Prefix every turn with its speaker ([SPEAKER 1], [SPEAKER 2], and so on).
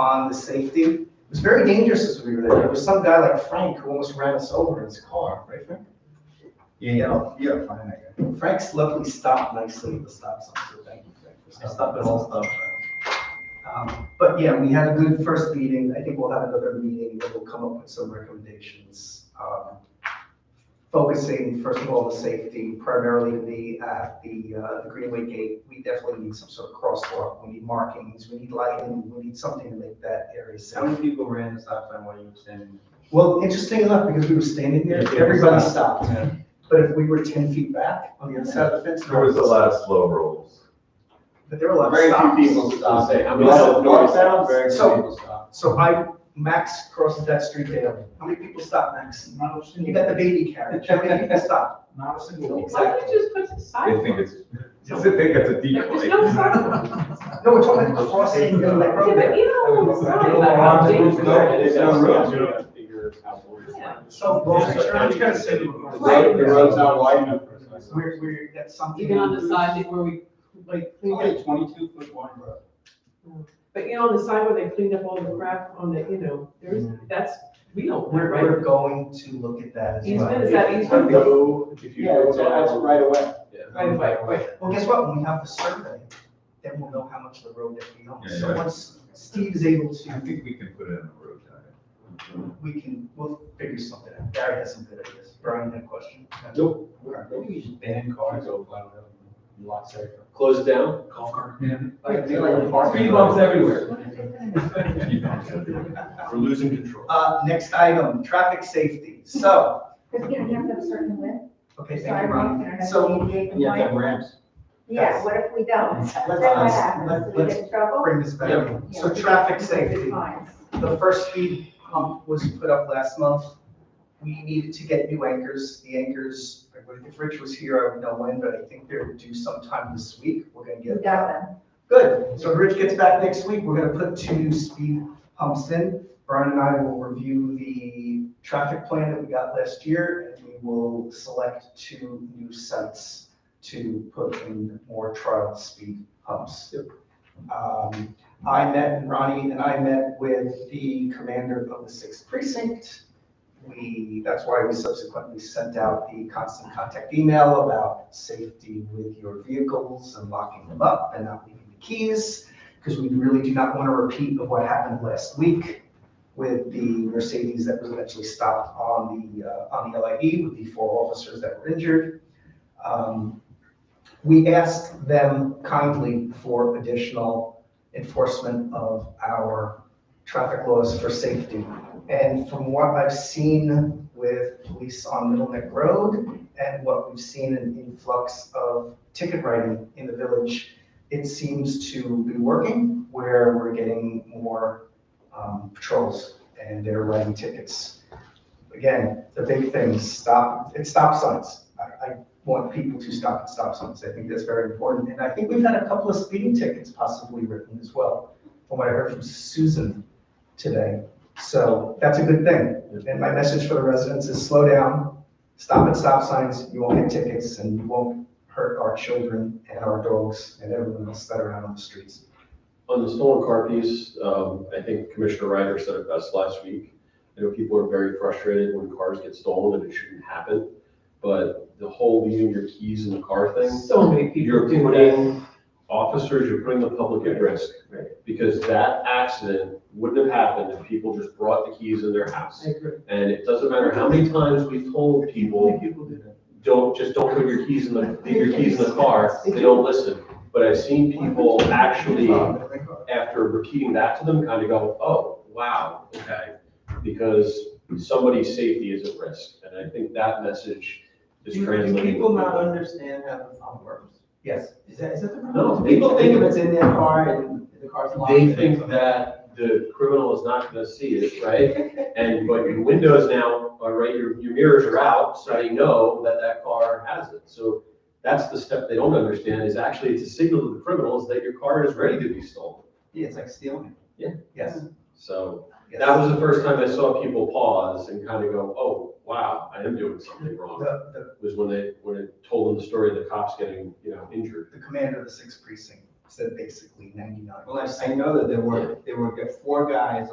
[SPEAKER 1] on the safety. It was very dangerous as we were there. There was some guy like Frank who almost ran us over in his car, right, Frank?
[SPEAKER 2] Yeah, you don't, you don't find that guy.
[SPEAKER 1] Frank's luckily stopped nicely at the stop sign, so thank you, Frank, for stopping all stop signs. Um, But yeah, we had a good first meeting. I think we'll have another meeting that will come up with some recommendations. um, Focusing, first of all, the safety, primarily the, at the uh, the Greenway Gate. We definitely need some sort of crosswalk. We need markings, we need lighting, we need something to make that area
[SPEAKER 2] How many
[SPEAKER 1] safe.
[SPEAKER 2] people ran the stop sign while you were standing?
[SPEAKER 1] Well, interesting enough, because we were standing there,
[SPEAKER 2] Yeah,
[SPEAKER 1] everybody
[SPEAKER 2] yeah.
[SPEAKER 1] stopped. But if we were ten feet back on the other side of the fence.
[SPEAKER 3] There was a lot of slow rolls.
[SPEAKER 1] But there were a lot of
[SPEAKER 2] Very
[SPEAKER 1] stops.
[SPEAKER 2] few people stopped.
[SPEAKER 4] I mean,
[SPEAKER 2] Lot
[SPEAKER 4] so-
[SPEAKER 2] of north bound, Very few
[SPEAKER 1] so-
[SPEAKER 2] people stopped.
[SPEAKER 1] So I, Max crosses that street daily. How many people stop, Max?
[SPEAKER 5] Not a
[SPEAKER 1] You
[SPEAKER 5] single,
[SPEAKER 1] got the baby carriage. How many people stop?
[SPEAKER 5] not a single. one.
[SPEAKER 1] Exactly.
[SPEAKER 6] Why don't you just put the
[SPEAKER 3] They
[SPEAKER 6] sidewalk?
[SPEAKER 3] think it's, they think it's a
[SPEAKER 6] Like,
[SPEAKER 3] decoy.
[SPEAKER 6] There's no sidewalk.
[SPEAKER 1] No, we're talking about crossing the like
[SPEAKER 6] Yeah,
[SPEAKER 1] road
[SPEAKER 6] but
[SPEAKER 1] there.
[SPEAKER 6] you know, what I'm saying about how dangerous
[SPEAKER 2] No,
[SPEAKER 6] it is.
[SPEAKER 2] it's on roads, you
[SPEAKER 4] don't have to figure out what it's like.
[SPEAKER 1] So, well, I'm trying to say.
[SPEAKER 2] The road- the road's not wide enough for a stop sign.
[SPEAKER 1] We're, we're, that's something.
[SPEAKER 6] Even on the side where we, like,
[SPEAKER 2] It's
[SPEAKER 6] clean
[SPEAKER 2] only
[SPEAKER 6] up,
[SPEAKER 2] a twenty-two foot wide road.
[SPEAKER 6] but you know, on the side where they cleaned up all the crap on the, you know, there's, that's, we don't,
[SPEAKER 1] We're,
[SPEAKER 6] right?
[SPEAKER 1] we're going to look at that as well.
[SPEAKER 6] Easement, is that easement?
[SPEAKER 4] Go, if you
[SPEAKER 2] Yeah,
[SPEAKER 4] go
[SPEAKER 2] it's, that's
[SPEAKER 4] down-
[SPEAKER 2] right away.
[SPEAKER 6] Right, right, right.
[SPEAKER 1] Well, guess what? When we have the survey, then we'll know how much of the road that we own.
[SPEAKER 3] Yeah,
[SPEAKER 1] So
[SPEAKER 3] yeah.
[SPEAKER 1] once Steve is able
[SPEAKER 3] I
[SPEAKER 1] to,
[SPEAKER 3] think we can put it on a road diet.
[SPEAKER 1] we can, we'll figure something out. Barry has some good ideas. Brian, that question?
[SPEAKER 4] Nope.
[SPEAKER 2] Maybe we should ban cars over Glen Road. Lot safer.
[SPEAKER 4] Close it down.
[SPEAKER 2] Golf cart.
[SPEAKER 1] Like,
[SPEAKER 2] Speed bumps everywhere.
[SPEAKER 3] You know, it's everywhere.
[SPEAKER 4] We're losing control.
[SPEAKER 1] Uh, next item, traffic safety. So,
[SPEAKER 7] Because we don't have to have a certain width,
[SPEAKER 1] okay, thank you,
[SPEAKER 7] sidewalks,
[SPEAKER 1] Ron.
[SPEAKER 7] and
[SPEAKER 1] So
[SPEAKER 2] And you have to have ramps.
[SPEAKER 7] Yeah, what if we don't? Then what
[SPEAKER 1] let's-
[SPEAKER 7] happens? Do we
[SPEAKER 1] let's-
[SPEAKER 7] get in trouble?
[SPEAKER 1] bring this back. in.
[SPEAKER 7] Yeah,
[SPEAKER 1] So
[SPEAKER 7] we get
[SPEAKER 1] traffic
[SPEAKER 7] fines.
[SPEAKER 1] safety, the first speed hump was put up last month. We needed to get new anchors. The anchors, if Rich was here, I would know when, but I think they're due sometime this week. We're gonna
[SPEAKER 7] We
[SPEAKER 1] get.
[SPEAKER 7] got them.
[SPEAKER 1] Good, so if Rich gets back next week, we're gonna put two new speed humps in. Brian and I will review the traffic plan that we got last year, and we will select two new sites to put in more trial speed humps. Um, I met, Ronnie and I met with the commander of the sixth precinct. We, that's why we subsequently sent out the constant contact email about safety with your vehicles and locking them up and not leaving the keys, because we really do not want to repeat of what happened last week with the Mercedes that was eventually stopped on the, uh, on the LIE with the four officers that were injured. Um, We asked them kindly for additional enforcement of our traffic laws for safety. And from what I've seen with police on Middle Neck Road and what we've seen in influx of ticket writing in the village, it seems to be working where we're getting more um, patrols and they're writing tickets. Again, the big thing, is stop, it's stop signs. I, I want people to stop at stop signs. I think that's very important. And I think we've had a couple of speeding tickets possibly written as well, from what I heard from Susan today. So that's a good thing. And my message for the residents is slow down, stop at stop signs, you won't get tickets, and you won't hurt our children and our dogs and everyone else that are out on the streets.
[SPEAKER 4] On the stolen car piece, um, I think Commissioner Ryder said it best last week. I know people are very frustrated when cars get stolen and it shouldn't happen, but the whole leaving your keys in the car thing,
[SPEAKER 6] So many people
[SPEAKER 4] you're
[SPEAKER 6] do that.
[SPEAKER 4] putting officers, you're putting the public at risk. Because that accident wouldn't have happened if people just brought the keys in their house.
[SPEAKER 6] I agree.
[SPEAKER 4] And it doesn't matter how many times we've told people, don't, just don't put your keys in the, leave your keys in the car, they don't listen. But I've seen people actually, after repeating that to them, kind of go, oh, wow, okay. Because somebody's safety is at risk, and I think that message is
[SPEAKER 2] Do
[SPEAKER 4] translating.
[SPEAKER 2] people not understand how the phone works?
[SPEAKER 1] Yes.
[SPEAKER 2] Is that, is that the
[SPEAKER 4] No,
[SPEAKER 2] problem? People think if it's in their car and the car's locked.
[SPEAKER 4] They think that the criminal is not gonna see it, right? And, but your windows now are right, your, your mirrors are out, so they know that that car has it. So that's the step they don't understand, is actually it's a signal to the criminals that your car is ready to be stolen.
[SPEAKER 2] Yeah, it's like stealing.
[SPEAKER 1] Yes.
[SPEAKER 4] So
[SPEAKER 1] yes.
[SPEAKER 4] that was the first time I saw people pause and kind of go, oh, wow, I am doing something wrong.
[SPEAKER 1] The- the-
[SPEAKER 4] Was when they, when it told them the story of the cops getting, you know, injured.
[SPEAKER 1] the commander of the sixth precinct
[SPEAKER 8] said basically ninety-nine.
[SPEAKER 2] Well, I, I know that there were, there were four guys